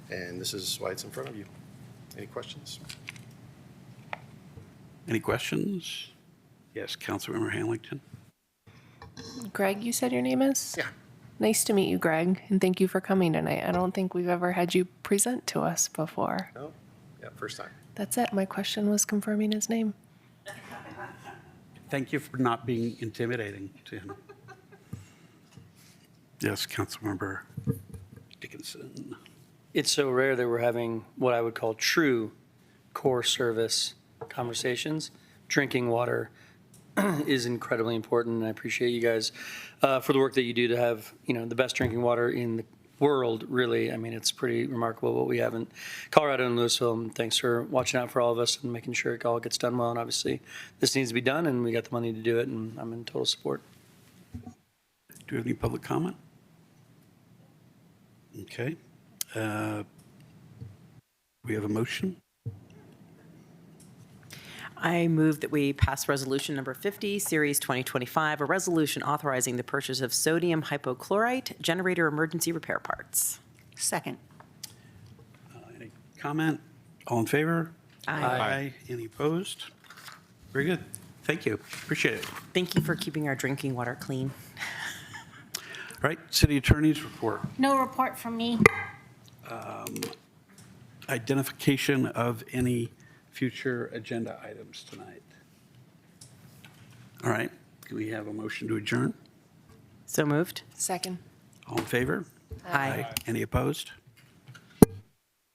And this is why it's in front of you. Any questions? Any questions? Yes, Councilmember Hamilton. Greg, you said your name is? Yeah. Nice to meet you, Greg, and thank you for coming tonight. I don't think we've ever had you present to us before. No? Yeah, first time. That's it. My question was confirming his name. Thank you for not being intimidating to him. Yes, Councilmember Dickinson. It's so rare that we're having what I would call true core service conversations. Drinking water is incredibly important, and I appreciate you guys uh, for the work that you do to have, you know, the best drinking water in the world, really. I mean, it's pretty remarkable what we have in Colorado and Louisville, and thanks for watching out for all of us and making sure it all gets done well. And obviously, this needs to be done, and we got the money to do it, and I'm in total support. Do you have any public comment? Okay. Uh, We have a motion. I move that we pass Resolution Number 50, Series 2025, a resolution authorizing the purchase of sodium hypochlorite generator emergency repair parts. Second. Any comment? All in favor? Aye. Any opposed? Very good. Thank you. Appreciate it. Thank you for keeping our drinking water clean. All right, city attorney's report. No report from me. identification of any future agenda items tonight. All right, can we have a motion to adjourn? So moved? Second. All in favor? Aye. Any opposed?